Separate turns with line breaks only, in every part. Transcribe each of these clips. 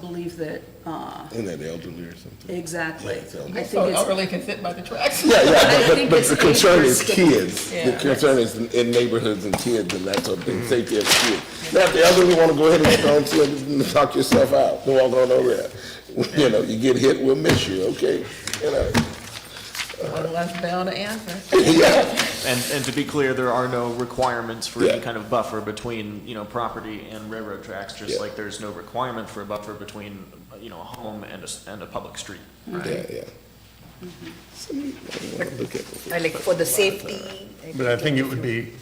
believe that, uh,
Isn't that elderly or something?
exactly.
Yeah, it's elderly.
I think
So
it's,
elderly can fit by the tracks.
Yeah, yeah,
I
but- but,
think
but
it's
the concern is
age-restricted.
kids. The
Yeah.
concern is in- in neighborhoods and kids and that sort of thing, safety of kids. Now, if the elderly want to go ahead and go to it and talk yourself out, no, I don't know that. You know, you get hit, we'll miss you, okay? You know,
One less bound to answer.
yeah,
And, and to be clear, there are no requirements for
Yeah.
any kind of buffer between, you know, property and railroad tracks,
Yeah.
just like there's no requirement for a buffer between, you know, a home and a, s- and a public street.
Mm-hmm. yeah, yeah. Something you wanna look at before-
Or like for the safety.
But I think it would be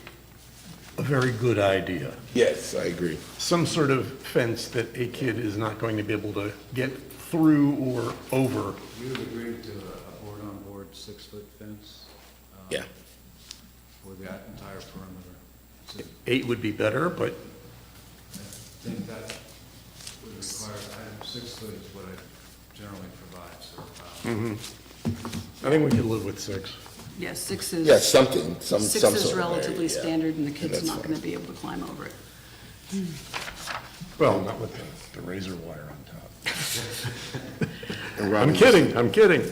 a very good idea,
Yes, I agree.
some sort of fence that a kid is not going to be able to get through or over.
You have agreed to a board-on-board six-foot fence um,
Yeah.
for that entire perimeter. So I
Eight would be better, but
think that would require, I- six foot is what I generally provide, so.
Mm-hmm.
um,
I think we could live with six.
yeah, six is.
Yeah, something, some, some
Six
sort of.
is
area,
relatively
yeah.
standard and the
Yeah,
kid's
that's
not
fine.
gonna be able to climb over it.
Well, not with the- the razor wire on top.
And
I'm
Robin,
kidding, I'm kidding.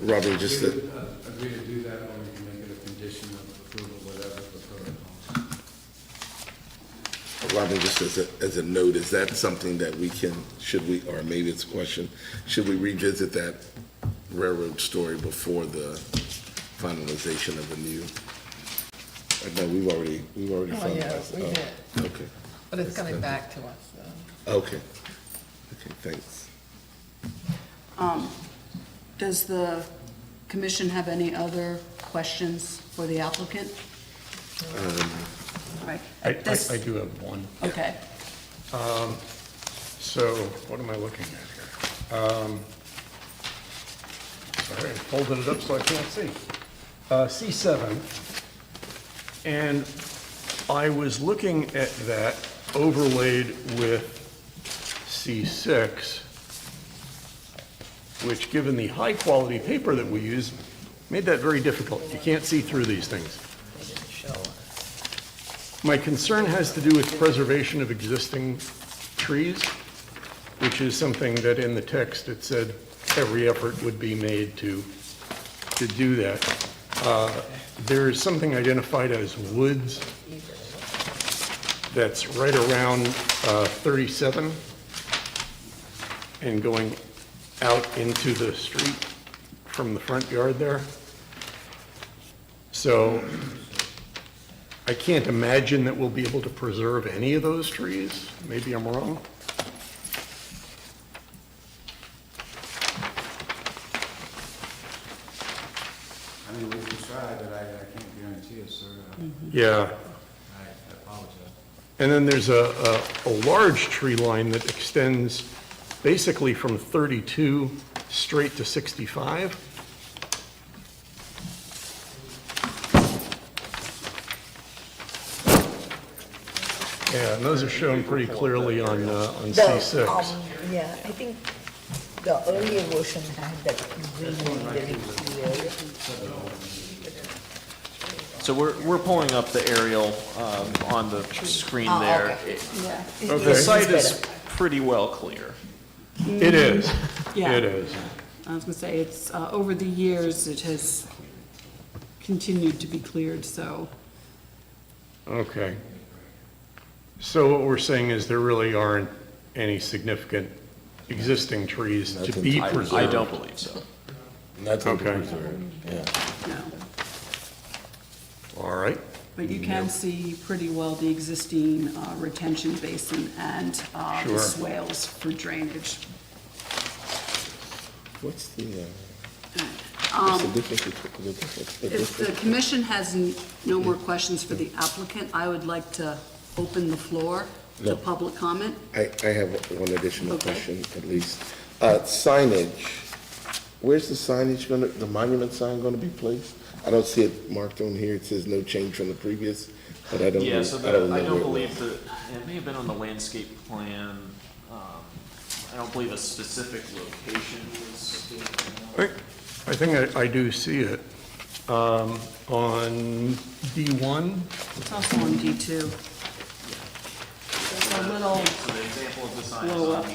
Robin, just,
We
that-
would, uh, Agree to do that, or we can make it a condition of approval, whatever the protocol.
Robin, just as a, as a note, is that something that we can, should we, or maybe it's a question, should we revisit that railroad story before the finalization of the new? Uh, No, we've already, we've already
Oh, yeah,
finalized.
we
Oh,
did.
Okay,
But it's coming back to us, so.
okay, okay, thanks.
Does the commission have any other questions for the applicant? All right.
Um, I, I
This-
I do have one.
Okay,
So what am I looking at here? Um, Sorry, I folded it up so I can't see. Uh, C7. And I was looking at that overlaid with C6, which, given the high-quality paper that we use, made that very difficult. You can't see through these things. My concern has to do with preservation of existing trees, which is something that in the text it said every effort would be made to, to do that. Uh, There is something identified as woods that's right around uh, 37 and going out into the street from the front yard there. So I can't imagine that we'll be able to preserve any of those trees. Maybe I'm wrong.
I mean, we can try, but I, I can't guarantee it, sir.
Mm-hmm.
I-
Yeah.
I I apologize.
And then there's a, a, a large tree line that extends basically from 32 straight to 65. Yeah, and those are shown pretty clearly on, uh, on
the,
C6.
um, Yeah, I think the earlier version had that really, very clear.
So we're, we're pulling up the aerial, um, on the screen
Oh,
there.
okay.
It-
yeah.
The
Okay.
site
It's
is pretty well clear.
It is.
Yeah.
It is.
I was gonna say, it's, uh, over the years, it has continued to be cleared, so.
Okay. So what we're saying is there really aren't any significant existing trees to be
I,
preserved?
I don't believe so.
Nothing to
Okay.
preserve, yeah.
No,
All right.
but you can see pretty well the existing uh, retention basin and uh, the
Sure.
swales for drainage.
What's the, uh, what's the
Um,
difference between, the difference? the
If the
difference-
commission has n- no more questions for the applicant, I would like to open the floor
No.
to public comment.
I, I have one additional
Okay.
question, at least. Uh, signage, where's the signage gonna, the monument sign gonna be placed? I don't see it marked on here, it says no change from the previous, but I don't,
Yeah, so
I
the,
don't know
I don't
where it
believe
was.
that, it may have been on the landscape plan. Um, I don't believe a specific location was.
I I think I, I do see it. Um, On D1,
It's also on D2. There's a little
So the example of the sign is
blow
on
up.